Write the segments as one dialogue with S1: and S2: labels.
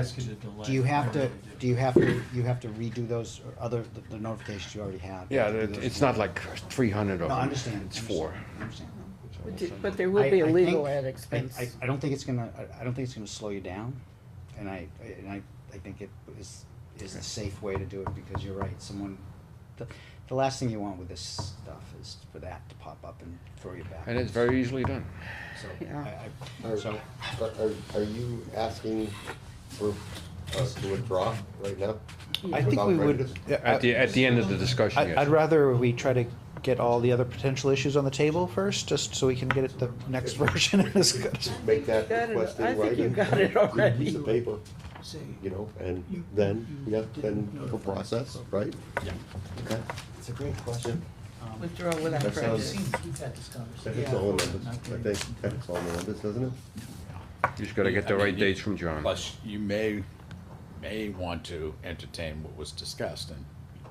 S1: ask you to delay.
S2: Do you have to,
S1: Whatever we
S2: do you have to, you have to redo those or other, the- the notifications you already have? You
S3: Yeah,
S2: have to do
S3: it-
S2: those
S3: it's
S2: again.
S3: not like three hundred of
S2: No,
S3: them.
S2: I understand.
S3: It's
S2: understand,
S3: four.
S2: I understand.
S4: But do- But there will be
S2: I-
S4: a
S2: I
S4: legal
S2: think-
S4: ad
S2: I-
S4: expense.
S2: I, I don't think it's gonna, I, I don't think it's gonna slow you down, and I, and I, I think it is, is the safe way to do it, because you're right, someone, the, the last thing you want with this stuff is for that to pop up and throw you back.
S3: And it's very easily done.
S2: So,
S4: Yeah.
S2: I, I,
S5: Are,
S2: so,
S5: are, are you asking for, uh, to withdraw right now?
S2: I think
S5: Without
S6: we would-
S5: prejudice?
S6: Yeah,
S3: At the, at the end of the discussion,
S6: I, I'd
S3: yes.
S6: rather we try to get all the other potential issues on the table first, just so we can get it the next version and discuss.
S5: Make that
S4: Got it.
S5: request
S4: I
S5: in
S4: think you
S5: writing.
S4: got it
S5: Give a
S4: already.
S5: Piece of paper,
S1: do.
S5: you know, and then, yeah, then the process, right?
S1: Yeah.
S5: Okay,
S2: it's a great question. Um,
S4: Withdraw without
S5: That
S4: prejudice.
S5: sounds-
S1: We've had this
S5: that
S1: conversation.
S5: is all numbers, I think, that's all numbers, doesn't it?
S3: You just gotta get the
S7: I mean,
S3: right
S7: you-
S3: dates from John.
S7: Plus, you may, may want to entertain what was discussed, and,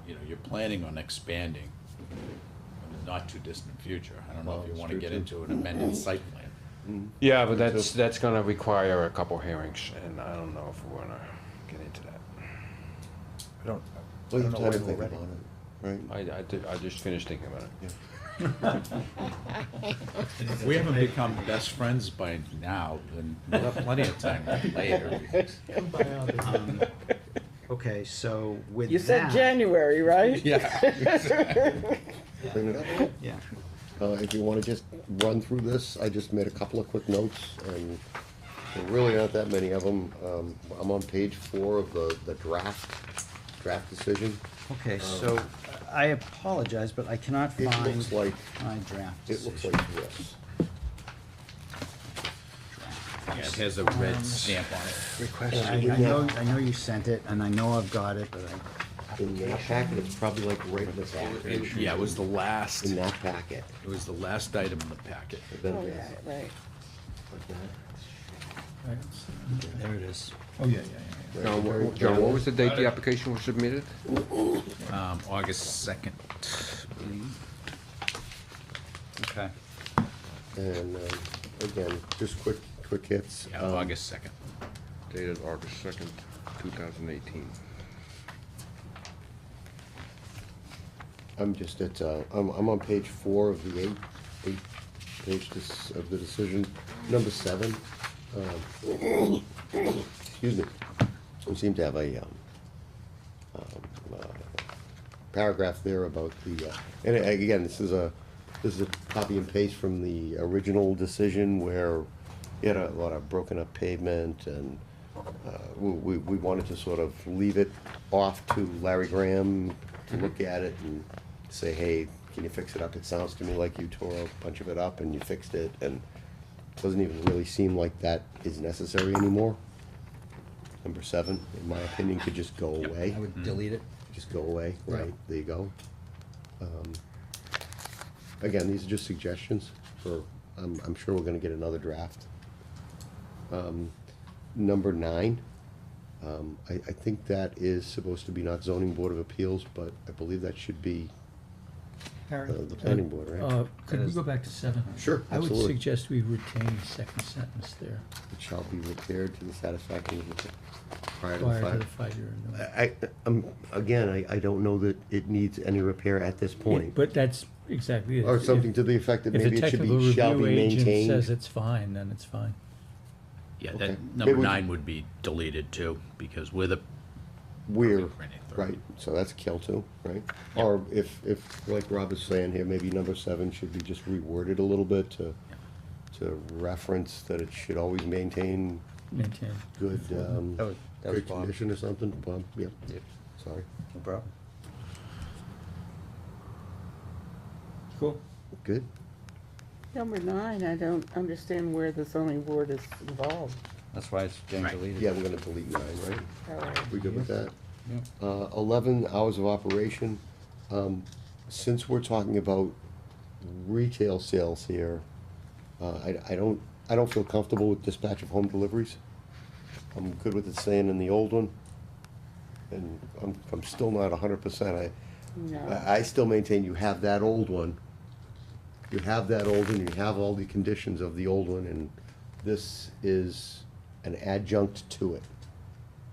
S7: you know, you're planning on expanding in the not-too-distant future. I don't know
S5: Well,
S7: if you
S5: that's
S7: wanna
S5: true,
S7: get
S5: too.
S7: into an amended site plan.
S3: Yeah, but that's, that's gonna require a couple hearings, and I don't know if we wanna get into that.
S6: I don't, I
S5: Well,
S6: don't
S5: you've
S6: know
S5: had
S6: whether
S5: to
S6: we're
S5: think
S6: ready.
S5: about it, right?
S3: I, I did, I just finished thinking about it.
S7: If we haven't become best friends by now, then we'll have plenty of time later.
S2: um, Okay, so with that.
S4: You said January, right?
S7: Yeah.
S2: Yeah.
S5: Uh, if you wanna just run through this, I just made a couple of quick notes, and there really aren't that many of them. Um, I'm on page four of the, the draft, draft decision.
S2: Okay, so I apologize, but I cannot
S5: Um, It
S2: find
S5: looks like,
S2: my draft
S5: it looks
S2: decision.
S5: like this.
S7: Yeah, it has a red stamp on it.
S2: I, I know, I know you sent it, and I know I've got it, but
S5: In that packet, it's probably like right in the back.
S7: It- Yeah, it was the last,
S5: In
S7: it
S5: that packet.
S7: was the last item in the packet.
S5: Then
S4: Oh,
S5: this,
S4: yeah, right.
S5: like that.
S2: I, there it is.
S1: Oh, yeah, yeah,
S5: Right,
S3: John,
S5: very-
S3: what- John, what was the date
S1: Got it.
S3: the application was submitted?
S7: Um, August second.
S2: Okay.
S5: And, um, again, just quick, quick hits.
S7: Yeah,
S5: Um,
S7: August second.
S3: Dated August second, two thousand eighteen.
S5: I'm just at, uh, I'm, I'm on page four of the eight, eight page dis- of the decision, number seven. um, Excuse me, we seem to have a, um, um, uh, paragraph there about the, uh, and a- again, this is a, this is a copy and paste from the original decision where you had a lot of broken up pavement and, uh, we, we- we wanted to sort of leave it off to Larry Graham to look at it and say, hey, can you fix it up? It sounds to me like you tore a bunch of it up and you fixed it, and it doesn't even really seem like that is necessary anymore. Number seven, in my opinion, could just go away,
S2: I would delete it.
S5: just go away, right,
S2: Right.
S5: there you go. Um, Again, these are just suggestions for, I'm, I'm sure we're gonna get another draft. Um, Number nine, um, I, I think that is supposed to be not zoning board of appeals, but I believe that should be uh, the planning board, right?
S1: Uh, could we go back to seven?
S5: Sure,
S1: I would
S5: absolutely.
S1: suggest we retain the second sentence there,
S5: It shall be repaired to the satisfaction of the prior to the
S1: prior to
S5: fire.
S1: the five-year renewal.
S5: I, um, again, I, I don't know that it needs any repair at this point.
S1: But that's exactly it.
S5: Or
S1: If-
S5: something to the effect that
S1: If the
S5: maybe it should
S1: technical
S5: be, shall be
S1: review agent says
S5: maintained.
S1: it's fine, then it's fine.
S7: Yeah,
S5: Okay.
S7: that, number
S5: Maybe we-
S7: nine would be deleted too, because we're the,
S5: We're,
S7: Running through.
S5: right, so that's kill too, right? Or if, if, like Rob is saying here, maybe number seven should be just reworded a little bit to, to reference that it should always maintain
S1: Maintain.
S5: good, um,
S2: That was- that was
S5: good
S2: Bob.
S5: condition or something, Bob, yep, sorry.
S2: No problem. Cool.
S5: Good,
S4: Number nine, I don't understand where the zoning board is involved.
S2: That's why it's getting
S7: Right.
S2: deleted.
S5: yeah, we're gonna delete nine, right?
S4: Uh,
S5: We good with that?
S2: Yeah.
S5: Uh, eleven hours of operation. Um, since we're talking about retail sales here, uh, I, I don't, I don't feel comfortable with dispatch of home deliveries. I'm good with it staying in the old one. And I'm, I'm still not hundred percent. I,
S4: No,
S5: I, I still maintain you have that old one. You have that old one, you have all the conditions of the old one, and this is an adjunct to it.